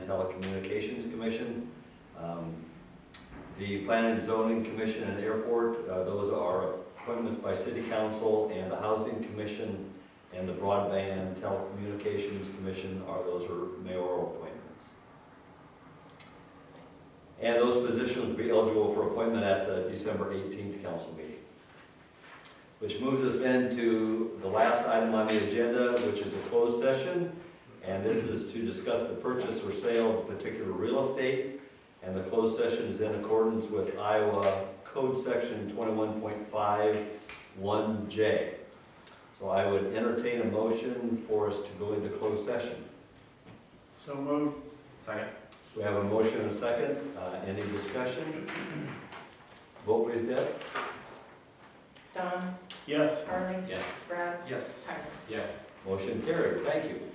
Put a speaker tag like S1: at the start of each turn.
S1: Telecommunications Commission, um, the Planning and Zoning Commission and Airport, uh, those are appointments by City Council, and the Housing Commission and the Broadband Telecommunications Commission are, those are mayoral appointments. And those positions will be eligible for appointment at the December 18th council meeting. Which moves us then to the last item on the agenda, which is a closed session. And this is to discuss the purchase or sale of particular real estate. And the closed session is in accordance with Iowa Code Section 21.51J. So I would entertain a motion for us to go into closed session.
S2: So moved. Second.
S1: We have a motion and a second. Uh, Any discussion? Vote please, Deb.
S3: Don,
S2: Yes.
S3: Harley,
S1: Yes.
S3: Brad,
S2: Yes.
S3: Tyler.
S2: Yes.
S1: Motion carried. Thank you.